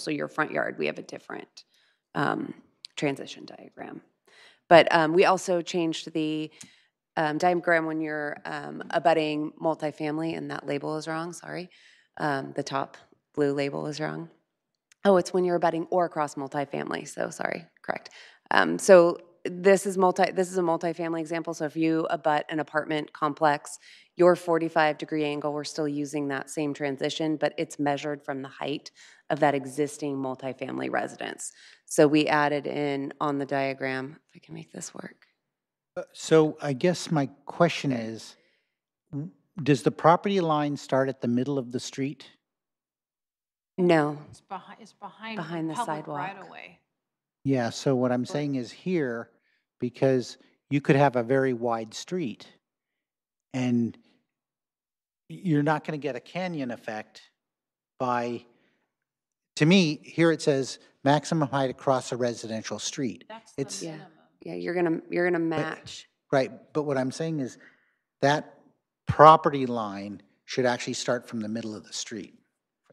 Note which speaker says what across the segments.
Speaker 1: so your front yard, we have a different um, transition diagram. But um, we also changed the um, diagram when you're um, abutting multifamily, and that label is wrong, sorry. Um, The top blue label is wrong. Oh, it's when you're abutting or across multifamily, so sorry, correct. Um, So this is multi, this is a multifamily example, so if you abut an apartment complex, your 45-degree angle, we're still using that same transition, but it's measured from the height of that existing multifamily residence. So we added in on the diagram, if I can make this work.
Speaker 2: Uh, So I guess my question is, w- does the property line start at the middle of the street?
Speaker 1: No,
Speaker 3: It's behind, it's behind.
Speaker 1: Behind the
Speaker 3: public
Speaker 1: sidewalk.
Speaker 3: Right away.
Speaker 2: Yeah, so what I'm saying is here, because you could have a very wide street and you're not going to get a canyon effect by, to me, here it says maximum height across a residential street.
Speaker 3: That's
Speaker 2: It's-
Speaker 3: the
Speaker 1: Yeah.
Speaker 3: minimum.
Speaker 1: yeah, you're gonna, you're gonna match.
Speaker 2: Right, but what I'm saying is that property line should actually start from the middle of the street,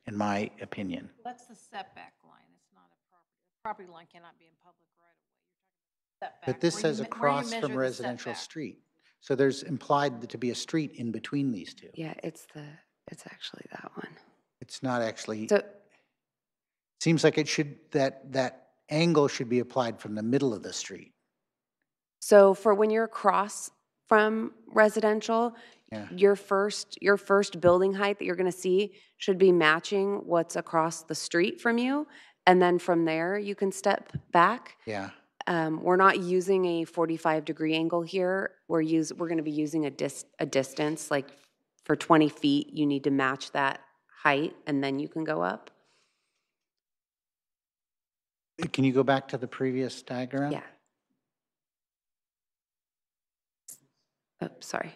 Speaker 2: in my opinion.
Speaker 3: That's the setback line. It's not a property, property line cannot be in public right away. Setback,
Speaker 2: But this
Speaker 3: where you
Speaker 2: says
Speaker 3: me- where you
Speaker 2: across
Speaker 3: measure
Speaker 2: from
Speaker 3: the
Speaker 2: residential
Speaker 3: setback.
Speaker 2: street. So there's implied to be a street in between these two.
Speaker 1: Yeah, it's the, it's actually that one.
Speaker 2: It's not actually,
Speaker 1: So,
Speaker 2: seems like it should, that, that angle should be applied from the middle of the street.
Speaker 1: so for when you're across from residential,
Speaker 2: Yeah.
Speaker 1: your first, your first building height that you're gonna see should be matching what's across the street from you. And then from there, you can step back.
Speaker 2: Yeah,
Speaker 1: Um, we're not using a 45 degree angle here. We're use, we're gonna be using a dis, a distance, like for 20 feet, you need to match that height and then you can go up.
Speaker 2: can you go back to the previous diagram?
Speaker 1: Yeah. Oh, sorry.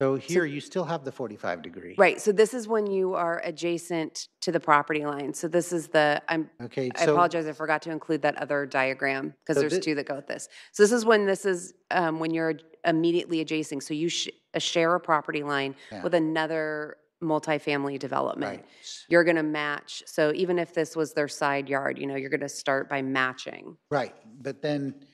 Speaker 2: So here, you still have the 45 degree.
Speaker 1: Right, so this is when you are adjacent to the property line. So this is the, I'm,
Speaker 2: Okay,
Speaker 1: I
Speaker 2: so.
Speaker 1: apologize, I forgot to include that other diagram, because
Speaker 2: So
Speaker 1: there's
Speaker 2: thi-
Speaker 1: two that go with this. So this is when this is, um, when you're immediately adjacent, so you sh- uh, share a property line
Speaker 2: Yeah,
Speaker 1: with another multifamily development.
Speaker 2: right.
Speaker 1: You're gonna match, so even if this was their side yard, you know, you're gonna start by matching.
Speaker 2: Right, but then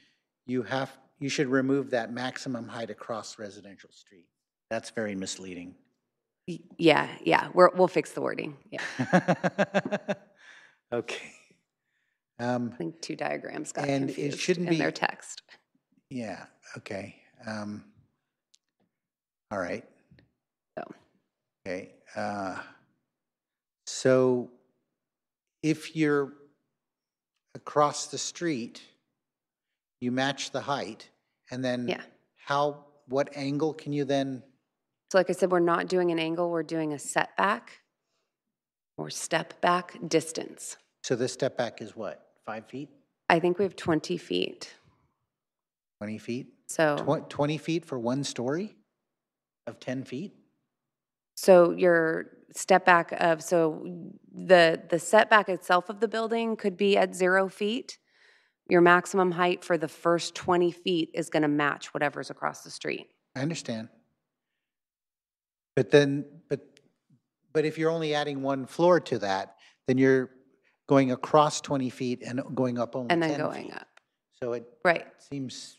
Speaker 2: you have, you should remove that maximum height across residential street. That's very misleading.
Speaker 1: Y- Yeah, yeah, we're, we'll fix the wording, yeah.
Speaker 2: Okay. Um,
Speaker 1: I think two diagrams got
Speaker 2: And it
Speaker 1: confused
Speaker 2: shouldn't
Speaker 1: in their
Speaker 2: be-
Speaker 1: text.
Speaker 2: yeah, okay. Um, all right.
Speaker 1: So.
Speaker 2: Okay, uh, so if you're across the street, you match the height, and then
Speaker 1: Yeah.
Speaker 2: how, what angle can you then?
Speaker 1: So like I said, we're not doing an angle, we're doing a setback or step back distance.
Speaker 2: So this step back is what, five feet,
Speaker 1: I think we have 20 feet,
Speaker 2: 20 feet?
Speaker 1: so,
Speaker 2: Twen- 20 feet for one story of 10 feet?
Speaker 1: so your step back of, so the, the setback itself of the building could be at zero feet. Your maximum height for the first 20 feet is going to match whatever's across the street.
Speaker 2: I understand. But then, but, but if you're only adding one floor to that, then you're going across 20 feet and going up only 10
Speaker 1: And
Speaker 2: feet.
Speaker 1: then going up,
Speaker 2: So it
Speaker 1: right.
Speaker 2: seems too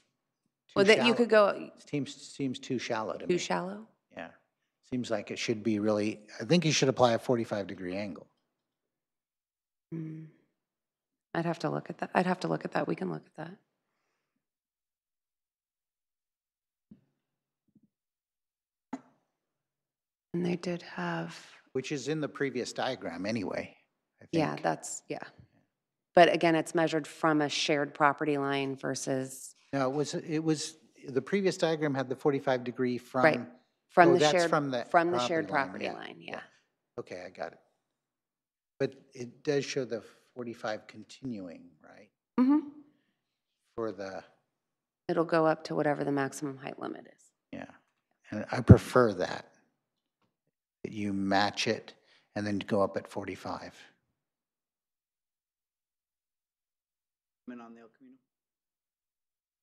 Speaker 1: Well, that you
Speaker 2: shallow.
Speaker 1: could go
Speaker 2: Seems, seems too shallow to me.
Speaker 1: too shallow.
Speaker 2: Yeah. Seems like it should be really, I think you should apply a 45-degree angle.
Speaker 1: Mm. I'd have to look at that. I'd have to look at that. We can look at that. And they did have,
Speaker 2: Which is in the previous diagram anyway, I
Speaker 1: yeah,
Speaker 2: think.
Speaker 1: that's, yeah. But again, it's measured from a shared property line versus,
Speaker 2: No, it was, it was, the previous diagram had the 45-degree from. Oh,
Speaker 1: from the
Speaker 2: that's
Speaker 1: shared,
Speaker 2: from the
Speaker 1: from the shared
Speaker 2: property
Speaker 1: property line,
Speaker 2: line, yeah,
Speaker 1: yeah.
Speaker 2: Okay, I got it. But it does show the 45 continuing, right,
Speaker 1: hmm
Speaker 2: for the,
Speaker 1: It'll go up to whatever the maximum height limit is.
Speaker 2: yeah. And I prefer that, that you match it and then go up at 45.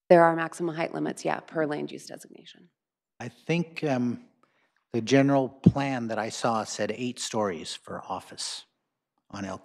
Speaker 1: There are maximum height limits, yeah, per land use designation.
Speaker 2: I think um, the general plan that I saw said eight stories for office on El